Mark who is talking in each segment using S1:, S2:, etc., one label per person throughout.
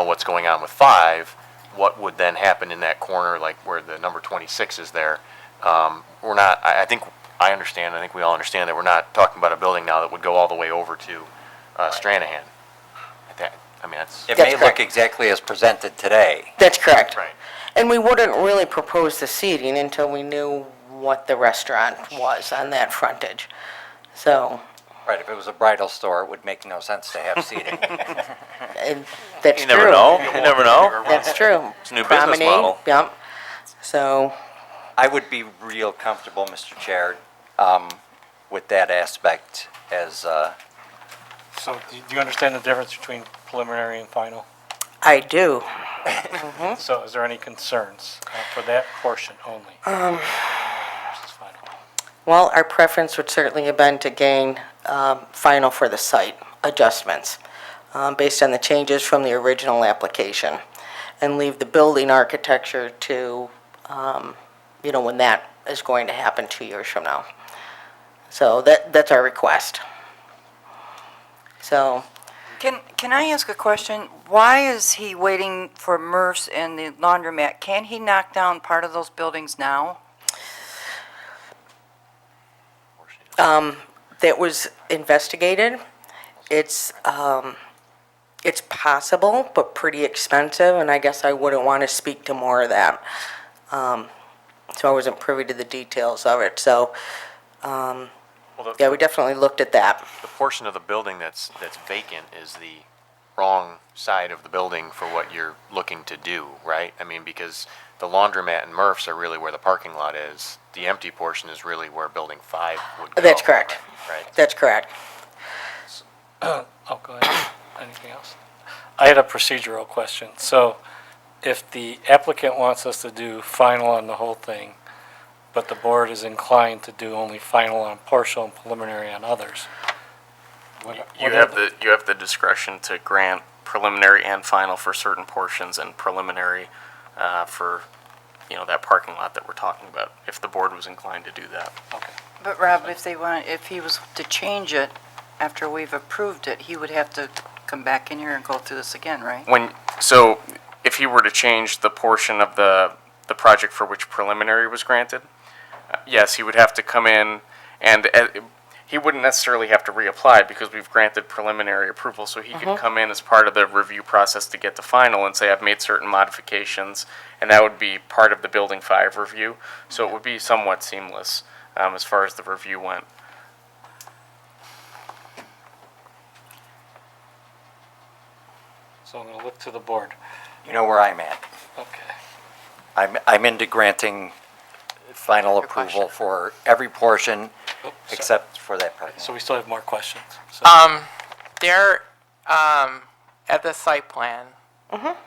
S1: what's going on with five, what would then happen in that corner, like where the number twenty-six is there? Um, we're not, I, I think, I understand, I think we all understand that we're not talking about a building now that would go all the way over to, uh, Stranahan. That, I mean, that's.
S2: It
S3: That's
S2: may look
S3: correct.
S2: exactly as presented today.
S3: That's correct.
S1: Right.
S3: And we wouldn't really propose the seating until we knew what the restaurant was on that frontage. So,
S2: Right, if it was a bridal store, it would make no sense to have seating.
S3: and that's
S4: You
S3: true.
S4: never know, you never know.
S3: That's true.
S4: It's a new business
S3: Promenade,
S4: model.
S3: Yep. So,
S2: I would be real comfortable, Mr. Chair, um, with that aspect as, uh,
S5: So do you- do you understand the difference between preliminary and final?
S3: I do.
S5: So is there any concerns uh, for that portion only? Versus final.
S3: Well, our preference would certainly have been to gain um, final for the site adjustments um, based on the changes from the original application and leave the building architecture to, um, you know, when that is going to happen two years from now. So that, that's our request. So
S6: Can, can I ask a question? Why is he waiting for MRFs and the laundromat? Can't he knock down part of those buildings now?
S3: that was investigated. It's, um, it's possible, but pretty expensive, and I guess I wouldn't want to speak to more of that. Um, so I wasn't privy to the details of it, so, um,
S1: Well, the-
S3: yeah, we definitely looked at that.
S1: The portion of the building that's, that's vacant is the wrong side of the building for what you're looking to do, right? I mean, because the laundromat and Murphs are really where the parking lot is. The empty portion is really where building five would go.
S3: That's correct.
S1: Right.
S3: That's correct.
S5: Oh, go ahead. Anything else? I had a procedural question. So if the applicant wants us to do final on the whole thing, but the board is inclined to do only final on partial and preliminary on others. what-
S4: You
S5: what are
S4: have the, you have the discretion to grant preliminary and final for certain portions and preliminary, uh, for, you know, that parking lot that we're talking about, if the board was inclined to do that.
S6: But Rob, if they want, if he was to change it after we've approved it, he would have to come back in here and go through this again, right?
S4: When, so if he were to change the portion of the, the project for which preliminary was granted, uh, yes, he would have to come in and, uh, he wouldn't necessarily have to reapply because we've granted preliminary approval, so he could come in as part of the review process to get to final and say, I've made certain modifications, and that would be part of the building five review, so it would be somewhat seamless, um, as far as the review went.
S5: So I'm going to look to the board.
S2: you know where I'm at.
S5: Okay.
S2: I'm, I'm into granting final approval for every portion except for that parking lot.
S5: So we still have more questions. So
S7: There, um, at the site plan.
S3: Mm-hmm.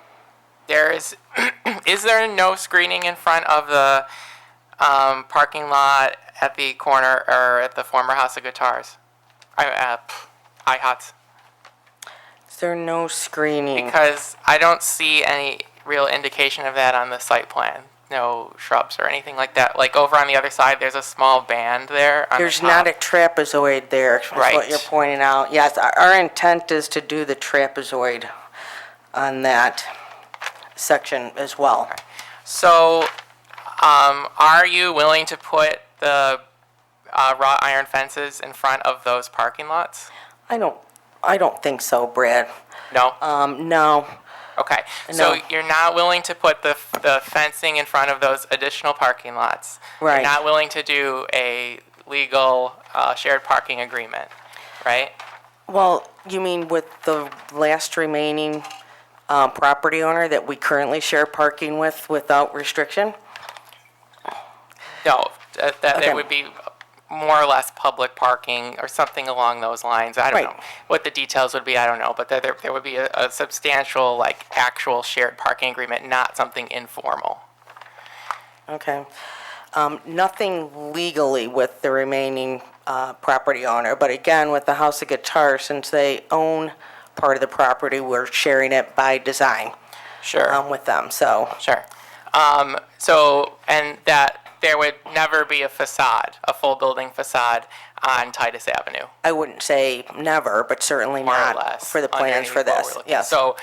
S7: there is, is there no screening in front of the, um, parking lot at the corner or at the former House of Guitars? I, uh, IHOTS.
S3: Is there no screening?
S7: Because I don't see any real indication of that on the site plan. No shrubs or anything like that. Like over on the other side, there's a small band there. on the
S3: There's not a
S7: top.
S3: trapezoid there, is what
S7: Right.
S3: you're pointing out. Yes, our our intent is to do the trapezoid on that section as well.
S7: So, um, are you willing to put the uh, wrought iron fences in front of those parking lots?
S3: I don't, I don't think so, Brad.
S7: No.
S3: Um, no,
S7: okay. So
S3: no.
S7: you're not willing to put the f- the fencing in front of those additional parking lots.
S3: Right.
S7: You're not willing to do a legal uh, shared parking agreement, right?
S3: well, you mean with the last remaining, uh, property owner that we currently share parking with without restriction?
S7: No, that, that
S3: Okay.
S7: it would be more or less public parking or something along those lines. I don't
S3: Right.
S7: know what the details would be. I don't know, but there- there, there would be a, a substantial, like, actual shared parking agreement, not something informal.
S3: Okay. Um, Nothing legally with the remaining uh, property owner, but again, with the House of Guitar, since they own part of the property, we're sharing it by design
S7: Sure.
S3: um, with them, so,
S7: Sure. Um, so, and that there would never be a facade, a full building facade on Titus Avenue,
S3: I wouldn't say never, but certainly
S7: more or
S3: not
S7: less.
S3: for the plans
S7: underneath
S3: for
S7: what we're
S3: this.
S7: looking-
S3: Yes,
S7: So,